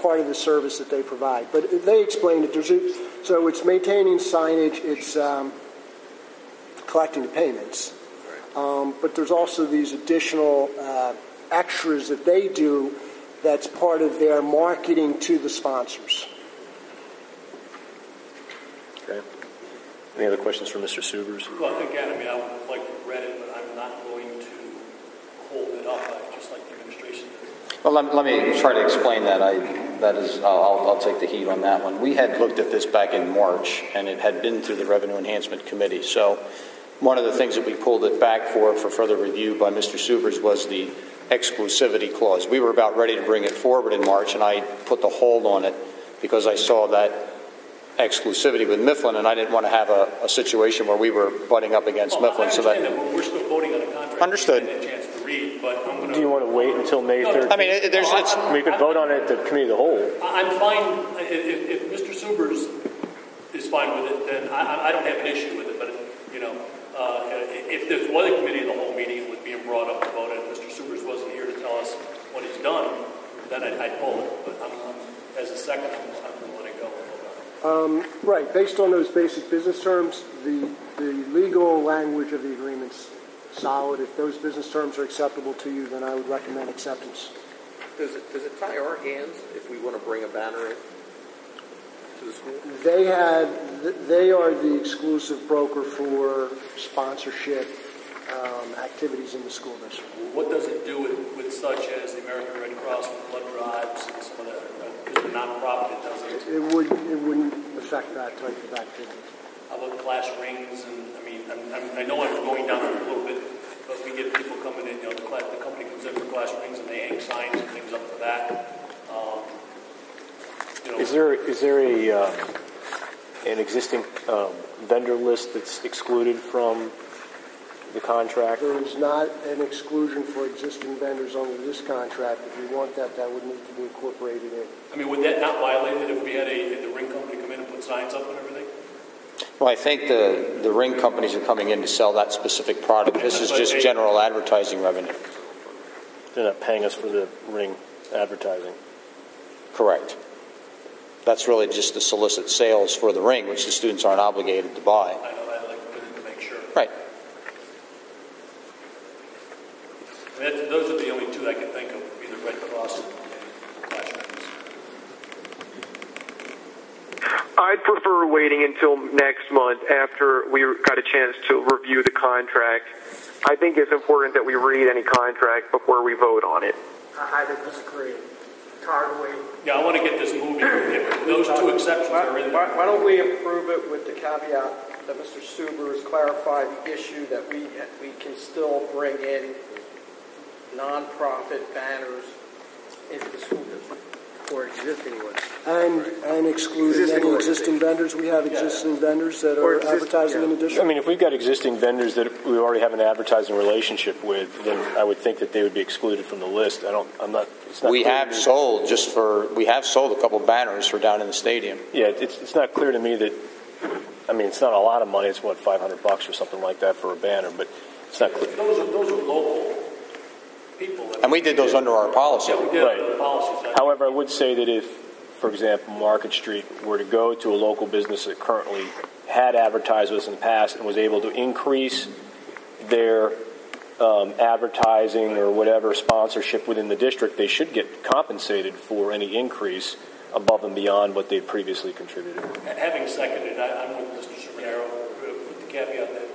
part of the service that they provide. But they explained it. There's a, so it's maintaining signage, it's um, collecting the payments, um, but there's also these additional uh, extras that they do. That's part of their marketing to the sponsors. Any other questions for Mr. Subers? Well, again, I mean, I would like to read it, but I'm not going to hold it up. I'd just like the administration to Well, let, let me try to explain that. I, that is, I'll, I'll- I'll take the heat on that one. We had looked at this back in March, and it had been through the Revenue Enhancement Committee. So one of the things that we pulled it back for, for further review by Mr. Subers, was the exclusivity clause. We were about ready to bring it forward in March, and I put the hold on it because I saw that exclusivity with Mifflin, and I didn't want to have a, a situation where we were butting up against Well, Mifflin. So I that understand that, but we're still voting on a contract. Understood. I didn't get a chance to read, but I'm going to. Do you want to wait until May No, no. 13th? I mean, it- there's, it's, We could vote on it at the committee of the whole. I- I'm fine, I- i- if, if Mr. Subers is fine with it, then I, I- I don't have an issue with it, but, you know, uh, i- if there's one committee of the whole meeting, it was being brought up about it, Mr. Subers wasn't here to tell us what he's done, then I'd, I'd pull it, but I'm, I'm- as a second, I'm- I'm going to let it go. Um, Right, based on those basic business terms, the, the legal language of the agreement's solid. If those business terms are acceptable to you, then I would recommend acceptance. Does it, does it tie our hands if we want to bring a banner in to the school? They had, they are the exclusive broker for sponsorship um, activities in the school district. What does it do with, with such as the American Red Cross, with blood drives, and some of that, because we're nonprofit, it doesn't. It would, it wouldn't affect that type of activity. How about class rings and, I mean, I'm, I'm, I know I'm going down a little bit, but we get people coming in, you know, the class, the company comes in for class rings and they hang signs and things up for that. Um, You Is know, there, is there a, uh, an existing um, vendor list that's excluded from the contract? There is not an exclusion for existing vendors under this contract. If you want that, that would need to be incorporated in. I mean, would that not violate it if we had a, had the ring company come in and put signs up and everything? Well, I think the, the ring companies are coming in to sell that specific product. This is just general advertising revenue. They're not paying us for the ring advertising. Correct. That's really just to solicit sales for the ring, which the students aren't obligated to buy. I know, I'd like to make sure. Right. And that's, those are the only two I can think of, would be the Red Cross and class rings. I'd prefer waiting until next month after we got a chance to review the contract. I think it's important that we read any contract before we vote on it. I highly disagree. Tired of waiting. Yeah, I want to get this moving. If Those two exceptions are in there. Why why don't we approve it with the caveat that Mr. Suber has clarified the issue that we, we can still bring in nonprofit banners into the school district? Or existing ones? And, and excluding Existing any or existing vendors, we have existing vendors that Or are exist- advertising in yeah. addition. I mean, if we've got existing vendors that we already have an advertising relationship with, then I would think that they would be excluded from the list. I don't, I'm not, it's not. We clear to have me- sold just for, we have sold a couple banners for down in the stadium. Yeah, it's, it's not clear to me that, I mean, it's not a lot of money. It's what, 500 bucks or something like that for a banner, but it's not clear. Those are, those are local people. And we did those under our policy. Yeah, we did have the policies. I- However, I would say that if, for example, Market Street were to go to a local business that currently had advertised with us in the past and was able to increase their um, advertising or whatever sponsorship within the district, they should get compensated for any increase above and beyond what they previously contributed. Having seconded, I- I'm with Mr. Sumero, uh, with the caveat that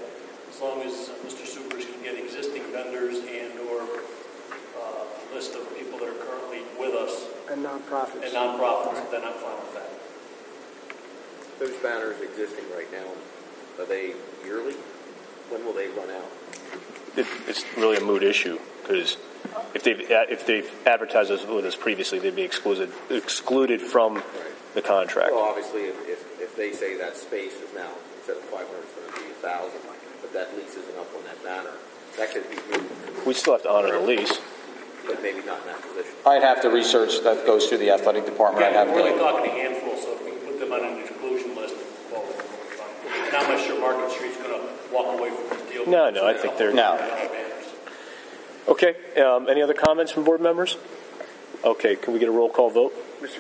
as long as Mr. Supers can get existing vendors and/or uh, list of people that are currently with us And nonprofits. and nonprofits, then I'm fine with that. Those banners existing right now, are they yearly? When will they run out? It, it's really a moot issue because if they've, if they've advertised us with us previously, they'd be excluded, excluded from the contract. Well, obviously, if, if, if they say that space is now, instead of 500, it's going to be 1,000, but that lease isn't up on that banner, that could be moved, We still have to honor the lease. but maybe not in that position. I'd have to research, that goes through the athletic department. I'd Yeah, have we're only to, talking a handful, so if we can put them on an exclusion list, well, we're fine. And I'm not sure Market Street's going to walk away from the deal. No, no, I think they're- No. Banners. Okay, um, any other comments from board members? Okay, can we get a roll call vote?